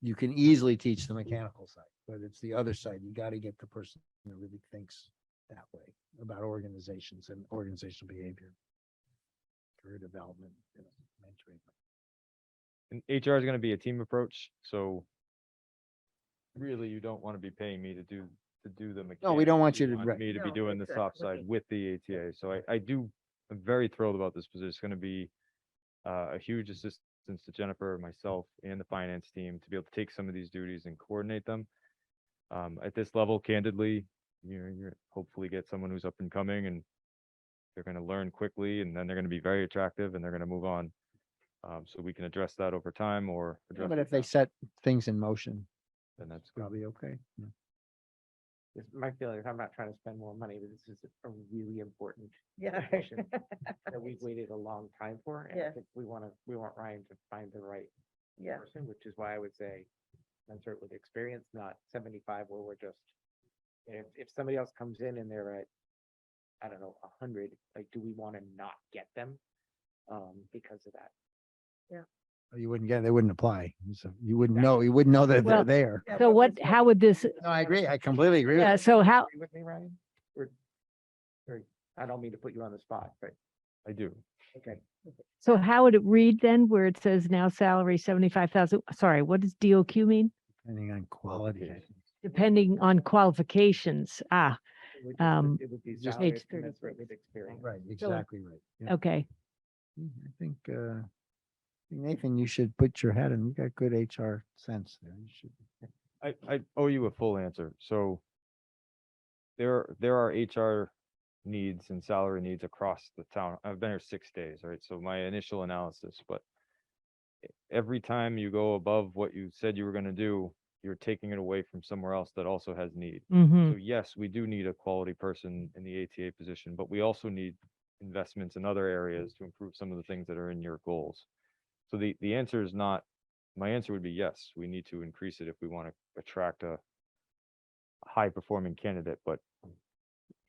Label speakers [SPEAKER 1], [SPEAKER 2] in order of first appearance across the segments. [SPEAKER 1] you can easily teach the mechanical side, but it's the other side. You got to get the person that really thinks that way about organizations and organizational behavior. Career development, you know, mentoring.
[SPEAKER 2] And HR is gonna be a team approach, so really you don't want to be paying me to do, to do the mechanics.
[SPEAKER 1] No, we don't want you to- right.
[SPEAKER 2] Me to be
[SPEAKER 3] No,
[SPEAKER 2] doing the soft
[SPEAKER 3] exactly.
[SPEAKER 2] side with the ATA, so I, I do, I'm very thrilled about this position. It's gonna be uh, a huge assistance to Jennifer, myself, and the finance team to be able to take some of these duties and coordinate them. Um, at this level candidly, you're, you're hopefully get someone who's up and coming and they're gonna learn quickly and then they're gonna be very attractive and they're gonna move on. Um, so we can address that over time or.
[SPEAKER 1] Yeah,
[SPEAKER 2] address
[SPEAKER 1] But
[SPEAKER 2] it
[SPEAKER 1] if they
[SPEAKER 2] now,
[SPEAKER 1] set things in motion,
[SPEAKER 2] Then that's good.
[SPEAKER 1] probably okay. Yeah.
[SPEAKER 4] This might feel like I'm not trying to spend more money, but this is a really important
[SPEAKER 3] Yeah.
[SPEAKER 4] position that we've waited a long time for. And I
[SPEAKER 3] Yeah.
[SPEAKER 4] think we want to, we want Ryan to find the right
[SPEAKER 3] Yeah,
[SPEAKER 4] person, which is why I would say insert with experience, not seventy-five where we're just. If, if somebody else comes in and they're at, I don't know, a hundred, like, do we want to not get them? Um, because of that.
[SPEAKER 1] You wouldn't get, they wouldn't apply. So you wouldn't
[SPEAKER 4] Exactly.
[SPEAKER 1] know, you wouldn't know that they're
[SPEAKER 5] Well-
[SPEAKER 1] there.
[SPEAKER 3] Yeah,
[SPEAKER 5] So
[SPEAKER 3] but
[SPEAKER 5] what,
[SPEAKER 3] that's
[SPEAKER 5] how would this,
[SPEAKER 1] No, I agree. I completely agree. with
[SPEAKER 5] yeah, so how,
[SPEAKER 4] Agree with me, Ryan? Or, or, I don't mean to put you on the spot, but,
[SPEAKER 2] I do.
[SPEAKER 4] okay.
[SPEAKER 5] so how would it read then where it says now salary seventy-five thousand? Sorry, what does DOQ mean?
[SPEAKER 1] Depending on quality. I think.
[SPEAKER 5] Depending on qualifications. Ah,
[SPEAKER 4] it would just-
[SPEAKER 5] Um,
[SPEAKER 4] It would be
[SPEAKER 1] just-
[SPEAKER 4] salary
[SPEAKER 5] Page 36.
[SPEAKER 4] commensurate with experience.
[SPEAKER 1] Right, exactly right. Yeah.
[SPEAKER 5] okay.
[SPEAKER 1] Mm, I think, uh, Nathan, you should put your head in. You got good HR sense there. You should.
[SPEAKER 2] I, I owe you a full answer, so. There, there are HR needs and salary needs across the town. I've been here six days, right? So my initial analysis, but. e- Every time you go above what you said you were gonna do, you're taking it away from somewhere else that also has need.
[SPEAKER 5] Mm-hmm.
[SPEAKER 2] So yes, we do need a quality person in the ATA position, but we also need investments in other areas to improve some of the things that are in your goals. So the, the answer is not, my answer would be yes, we need to increase it if we want to attract a high performing candidate, but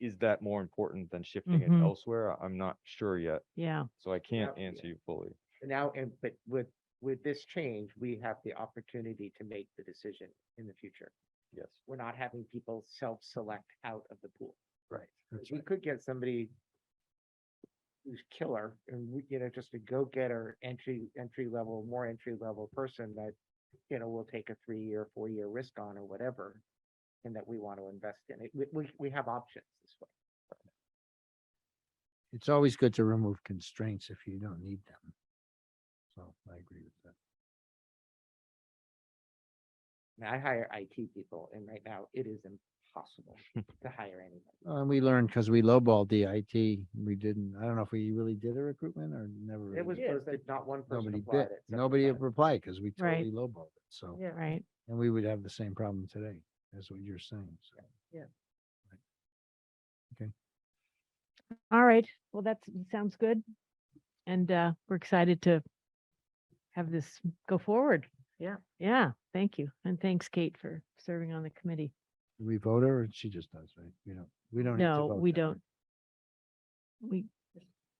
[SPEAKER 2] is that more important than shifting it
[SPEAKER 5] Mhm.
[SPEAKER 2] elsewhere? I- I'm not sure yet,
[SPEAKER 5] Yeah,
[SPEAKER 2] so I can't
[SPEAKER 4] Yeah.
[SPEAKER 2] answer you fully.
[SPEAKER 4] And Now, and, but with, with this change, we have the opportunity to make the decision in the future.
[SPEAKER 2] Yes.
[SPEAKER 4] We're not having people self-select out of the pool.
[SPEAKER 1] Right. That's
[SPEAKER 4] We
[SPEAKER 1] right.
[SPEAKER 4] could get somebody who's killer and we, you know, just a go-getter entry, entry level, more entry level person that, you know, will take a three-year, four-year risk on or whatever. And that we want to invest in it. We, we, we have options this way.
[SPEAKER 1] It's always good to remove constraints if you don't need them. So I agree with that.
[SPEAKER 4] And I hire IT people and right now it is impossible to hire anybody.
[SPEAKER 1] Uh, And we learned because we lowballed the IT. We didn't, I don't know if we really did a recruitment or never. really
[SPEAKER 4] It was
[SPEAKER 1] did.
[SPEAKER 3] Yeah.
[SPEAKER 4] posted, not one person
[SPEAKER 1] Nobody
[SPEAKER 4] applied
[SPEAKER 1] bit,
[SPEAKER 4] it. except
[SPEAKER 1] nobody
[SPEAKER 4] for
[SPEAKER 1] replied because we
[SPEAKER 5] Right.
[SPEAKER 1] totally lowballed it. So,
[SPEAKER 3] yeah.
[SPEAKER 5] right.
[SPEAKER 1] and we would have the same problem today. That's what you're saying. So
[SPEAKER 5] All right. Well, that sounds good. And uh, we're excited to have this go forward.
[SPEAKER 3] Yeah.
[SPEAKER 5] Yeah, thank you. And thanks, Kate, for serving on the committee.
[SPEAKER 1] do we vote her or she just does, right? We don't, we don't. need to
[SPEAKER 5] No,
[SPEAKER 1] vote
[SPEAKER 5] we
[SPEAKER 1] that, right?
[SPEAKER 5] don't. We,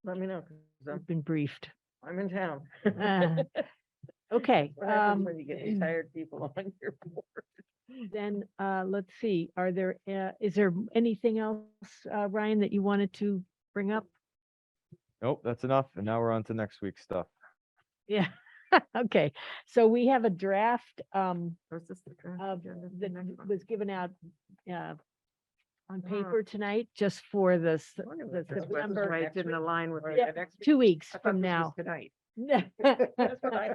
[SPEAKER 3] let me know, 'cause I'm,
[SPEAKER 5] we've been briefed.
[SPEAKER 3] I'm in town.
[SPEAKER 5] Uh, Okay.
[SPEAKER 3] What happens
[SPEAKER 5] um,
[SPEAKER 3] When you get retired people on your board.
[SPEAKER 5] Then, uh, let's see, are there, uh, is there anything else, uh, Ryan, that you wanted to bring up?
[SPEAKER 2] Nope, that's enough, and now we're on to next week's stuff.
[SPEAKER 5] Yeah, okay, so we have a draft, um,
[SPEAKER 3] Was this the draft
[SPEAKER 5] of,
[SPEAKER 3] agenda for
[SPEAKER 5] that
[SPEAKER 3] next month?
[SPEAKER 5] was given out, uh, on
[SPEAKER 3] Ah.
[SPEAKER 5] paper tonight, just for the, s-
[SPEAKER 3] I wonder
[SPEAKER 5] the
[SPEAKER 3] if this was-
[SPEAKER 5] September-
[SPEAKER 3] why it
[SPEAKER 4] next
[SPEAKER 3] Didn't
[SPEAKER 4] week,
[SPEAKER 3] align with.
[SPEAKER 4] or
[SPEAKER 3] the-
[SPEAKER 5] Yeah.
[SPEAKER 4] the next week.
[SPEAKER 5] two weeks
[SPEAKER 4] I thought
[SPEAKER 5] from
[SPEAKER 4] this was
[SPEAKER 5] now.
[SPEAKER 4] Tonight.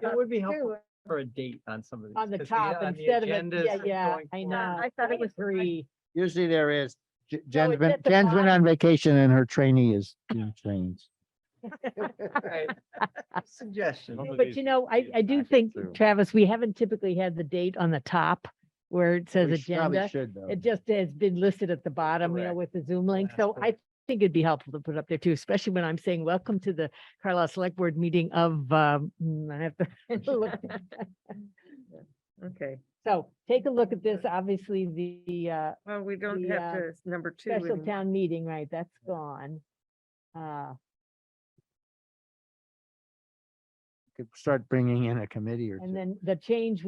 [SPEAKER 3] It would be helpful.
[SPEAKER 6] for a date on some of these.
[SPEAKER 5] On the
[SPEAKER 6] 'cause we had
[SPEAKER 5] top
[SPEAKER 6] on the
[SPEAKER 5] instead of, it-
[SPEAKER 6] agendas
[SPEAKER 5] yeah, yeah,
[SPEAKER 6] going
[SPEAKER 5] I
[SPEAKER 6] forward.
[SPEAKER 5] know.
[SPEAKER 3] I thought it was- I-
[SPEAKER 5] Three.
[SPEAKER 1] Usually there is. J- Jen's
[SPEAKER 5] it's
[SPEAKER 1] been,
[SPEAKER 5] at the
[SPEAKER 1] Jen's been
[SPEAKER 5] bottom.
[SPEAKER 1] on vacation and her trainee is being trained.
[SPEAKER 6] Right. Suggestion.
[SPEAKER 2] Some of
[SPEAKER 5] But
[SPEAKER 2] these
[SPEAKER 5] you know, I,
[SPEAKER 2] these
[SPEAKER 5] I do
[SPEAKER 2] packets
[SPEAKER 5] think,
[SPEAKER 2] too.
[SPEAKER 5] Travis, we haven't typically had the date on the top where it says
[SPEAKER 1] We sh- probably
[SPEAKER 5] agenda.
[SPEAKER 1] should, though.
[SPEAKER 5] It just has been listed at the bottom, you know,
[SPEAKER 6] Correct.
[SPEAKER 5] with the Zoom link.
[SPEAKER 6] Last
[SPEAKER 5] So I
[SPEAKER 6] bullet.
[SPEAKER 5] think it'd be helpful to put up there too, especially when I'm saying, welcome to the Carlisle Select Board meeting of, um, mm, I have to look.
[SPEAKER 3] Okay,
[SPEAKER 5] So take a look at this. Obviously, the, uh,
[SPEAKER 3] well, we don't
[SPEAKER 5] The,
[SPEAKER 3] have
[SPEAKER 5] uh,
[SPEAKER 3] to, it's number two.
[SPEAKER 5] special
[SPEAKER 3] in-
[SPEAKER 5] town meeting, right? That's gone. Uh,
[SPEAKER 1] Could start bringing in a committee or two.
[SPEAKER 5] and then the change would